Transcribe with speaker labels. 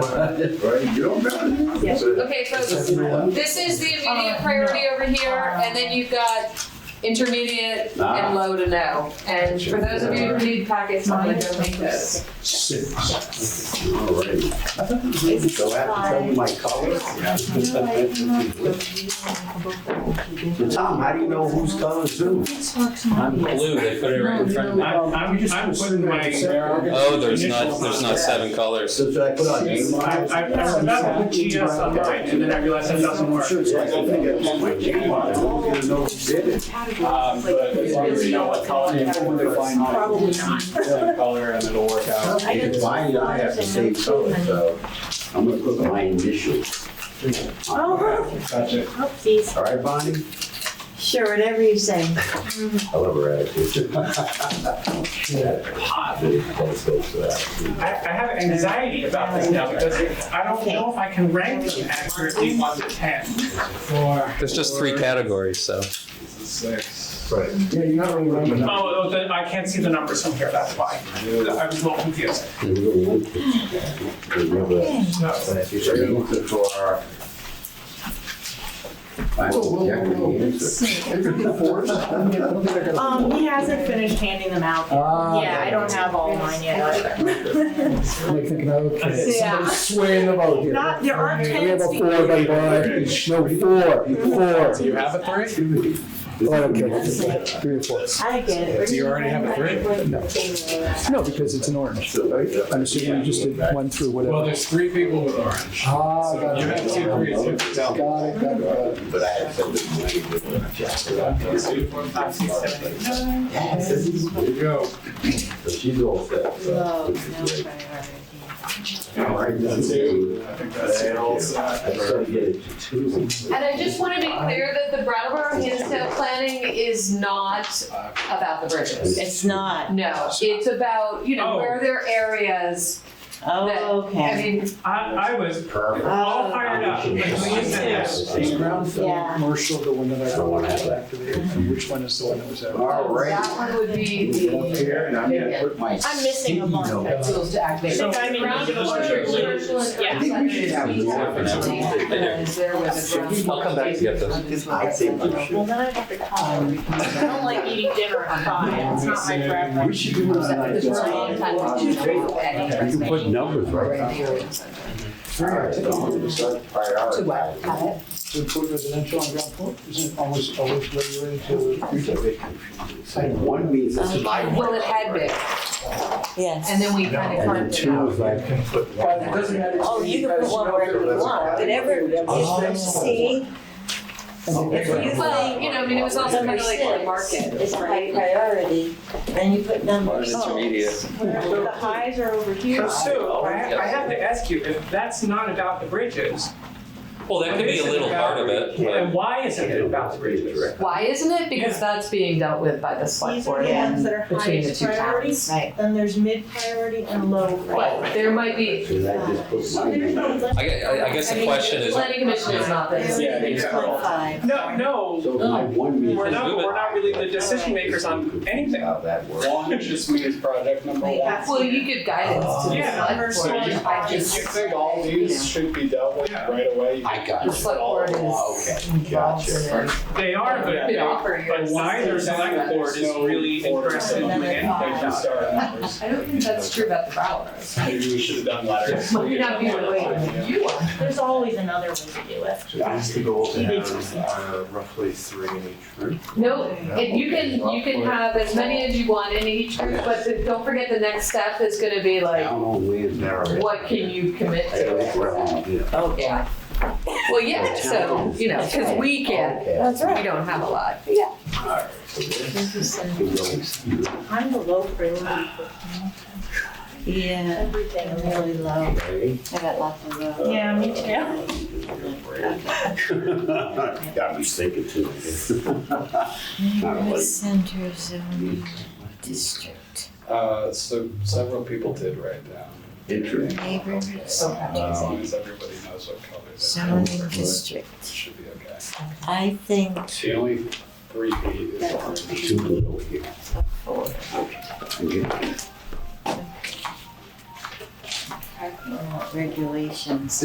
Speaker 1: Right, you don't matter. That's it.
Speaker 2: Okay, folks, this is the immediate priority over here, and then you've got intermediate
Speaker 3: Ah.
Speaker 2: and low to no. And for those of you who need packets, I'm gonna go make those.
Speaker 3: Six.
Speaker 1: All right.
Speaker 3: So I have to tell you my colors? So Tom, how do you know whose colors who?
Speaker 4: I'm blue, they put it right in front of me.
Speaker 5: I'm, I'm just, I'm putting my.
Speaker 4: Oh, there's not, there's not seven colors.
Speaker 3: So should I put on
Speaker 5: I,
Speaker 3: name?
Speaker 5: I, I was about to put GS on mine, and then I realized that doesn't work.
Speaker 3: Sure, it's like-
Speaker 5: Um, but as long as you know what color. you want to find out.
Speaker 6: Probably not.
Speaker 5: One color and it'll work out.
Speaker 3: Mine, I have the same color, so I'm gonna put my initials. on there.
Speaker 6: Oopsies.
Speaker 3: All right, Bonnie?
Speaker 6: Sure, whatever you say.
Speaker 3: I love her attitude. Yeah, Positive, that's so sad.
Speaker 5: I, I have anxiety about this now because I don't know if I can rank them accurately one to ten. Four.
Speaker 4: There's just three categories, so.
Speaker 5: Six.
Speaker 3: Right. Yeah, you have a
Speaker 5: Oh, oh, the- I can't see the numbers from here, that's why. I was a little confused. No.
Speaker 6: Um, he hasn't finished handing them out.
Speaker 7: Ah.
Speaker 6: Yeah, I don't have all mine yet either.
Speaker 7: Like thinking, okay,
Speaker 6: Yeah.
Speaker 7: somebody's swaying about here.
Speaker 6: Not, there aren't
Speaker 7: We have
Speaker 6: ten
Speaker 7: a four by one, no, four, four.
Speaker 3: you have a three?
Speaker 7: Oh, okay, three or four.
Speaker 6: I get it. Do you already have a three? No.
Speaker 7: No, because it's an orange, right? I'm assuming you just did one through
Speaker 8: Well,
Speaker 7: whatever.
Speaker 8: there's three people with orange.
Speaker 7: Ah,
Speaker 8: So
Speaker 7: got
Speaker 8: you have
Speaker 7: it.
Speaker 8: two
Speaker 7: Got
Speaker 8: threes.
Speaker 7: it,
Speaker 8: you have to tell.
Speaker 7: got it, got it.
Speaker 3: But I had said that.
Speaker 5: Five, six, seven, eight, nine.
Speaker 3: There you go. So she's all set. so it's great. All right, that's
Speaker 8: Two.
Speaker 3: it.
Speaker 8: I think that's it. All set.
Speaker 3: I started to get it to two.
Speaker 2: And I just wanna be clear that the Brattleboro Hinsdale planning is not about the bridges.
Speaker 6: It's not.
Speaker 2: No, it's about, you know, where there are areas that,
Speaker 6: Oh,
Speaker 2: I
Speaker 6: okay.
Speaker 2: mean,
Speaker 5: I, I was
Speaker 3: Perfect.
Speaker 5: all fired up. Like, when you said that.
Speaker 7: Is Brownfield
Speaker 6: Yeah.
Speaker 7: commercial the one that I
Speaker 3: I don't wanna have
Speaker 7: got
Speaker 3: that.
Speaker 7: activated? And Which one is the one that was out?
Speaker 3: All
Speaker 2: that
Speaker 3: right.
Speaker 2: one would be
Speaker 3: Move it up
Speaker 2: the
Speaker 3: here and I'm gonna put my.
Speaker 6: I'm missing a
Speaker 3: seat
Speaker 6: marker.
Speaker 3: note.
Speaker 2: tools to activate.
Speaker 5: So-
Speaker 6: I mean,
Speaker 2: Ground
Speaker 5: Yeah.
Speaker 2: water, commercial, and
Speaker 6: Yeah.
Speaker 3: I think we should have
Speaker 2: other
Speaker 3: more
Speaker 2: activities.
Speaker 3: for now.
Speaker 2: Because there was a ground
Speaker 4: I'll come back to get those.
Speaker 3: I think we
Speaker 6: Well,
Speaker 3: should.
Speaker 6: then I have to call. I don't like eating dinner at five. It's not my preference.
Speaker 3: We should do it on
Speaker 2: Because we're a long time into the
Speaker 3: like.
Speaker 2: show, and
Speaker 3: You can put numbers right
Speaker 2: we're in
Speaker 3: now.
Speaker 2: the area of Sunday.
Speaker 3: All right, so I'm gonna start prioritizing.
Speaker 7: So put residential on ground floor, isn't it almost always regulated to retail?
Speaker 3: Like one means this is my.
Speaker 2: Well, it had been,
Speaker 6: Yes.
Speaker 2: and then we
Speaker 3: And
Speaker 2: kind of
Speaker 3: then
Speaker 2: carved it
Speaker 3: two
Speaker 2: out.
Speaker 3: is like. put one.
Speaker 6: Oh, you can put one wherever you want, whatever,
Speaker 3: Oh.
Speaker 6: see? If you think
Speaker 2: Well, you know, I mean, it was also kind of like the
Speaker 6: number
Speaker 2: market.
Speaker 6: six is high priority, and you put number
Speaker 4: Mine's intermediate.
Speaker 6: six. Oh, The highs are over here.
Speaker 5: So Sue, I, ha- I have to ask you, if that's not about the bridges,
Speaker 4: Well, that could be a little part of it,
Speaker 5: then
Speaker 4: but
Speaker 5: why isn't it about the bridges?
Speaker 2: Why isn't it? Because that's being dealt with by the select
Speaker 6: These are
Speaker 2: board
Speaker 6: the ones
Speaker 2: and
Speaker 6: that are
Speaker 2: between the
Speaker 6: highest
Speaker 2: two
Speaker 6: priority,
Speaker 2: towns. Right.
Speaker 6: then there's mid priority and low
Speaker 2: But
Speaker 6: priority.
Speaker 2: there might be,
Speaker 3: Should I just put my name?
Speaker 4: I gue- I- I guess the question is,
Speaker 2: planning commission is not this.
Speaker 5: Yeah, these are all-
Speaker 6: Five.
Speaker 5: No, no,
Speaker 3: So my one means.
Speaker 5: we're not, we're not really the decision makers on anything.
Speaker 3: How that works.
Speaker 8: Orange just means project number
Speaker 6: Wait,
Speaker 8: one.
Speaker 6: that's-
Speaker 2: Well, you give guidance to the
Speaker 5: Yeah.
Speaker 2: select
Speaker 8: So
Speaker 2: board.
Speaker 8: you,
Speaker 2: I
Speaker 8: Oh, you
Speaker 2: just,
Speaker 8: think all these should be dealt with
Speaker 5: Yeah.
Speaker 8: right away?
Speaker 3: I got
Speaker 2: the
Speaker 3: it.
Speaker 2: select board is
Speaker 3: Oh, okay.
Speaker 2: involved in it.
Speaker 5: They are, but
Speaker 2: Could offer you
Speaker 5: But neither
Speaker 2: assistance.
Speaker 5: select board is really interested in doing anything
Speaker 8: Like you
Speaker 5: about it.
Speaker 8: start numbers.
Speaker 2: I don't think that's true about the Bowers.
Speaker 8: Maybe we should have done letters.
Speaker 2: Might not be the way you want.
Speaker 6: There's always another way to do it.
Speaker 9: That's the goal to
Speaker 6: He
Speaker 9: have
Speaker 6: needs to
Speaker 9: uh, roughly three in each group.
Speaker 2: No, and you can, you can have as many as you want in each group, but the- don't forget the next step is gonna be like,
Speaker 3: Down on land narrow.
Speaker 2: what can you commit
Speaker 3: I don't
Speaker 2: to?
Speaker 3: know where I'm at.
Speaker 2: Oh, yeah. Well, yeah, so, you know, cause we can't,
Speaker 3: Okay.
Speaker 2: we don't have a lot.
Speaker 3: All right, so this is going here,
Speaker 6: I'm the low priority. Yeah. Everything is really low.
Speaker 3: okay?
Speaker 6: Yeah, me too.
Speaker 3: Got me thinking too.
Speaker 6: Center zone district,
Speaker 8: Uh, so several people did write down,
Speaker 3: Interesting.
Speaker 6: neighborhood
Speaker 3: Um,
Speaker 8: as long as everybody knows what color
Speaker 6: zoning
Speaker 8: they are.
Speaker 6: district.
Speaker 8: Should be okay.
Speaker 6: I think
Speaker 8: The only three feet is orange.
Speaker 3: Too little here. Okay.
Speaker 6: regulations.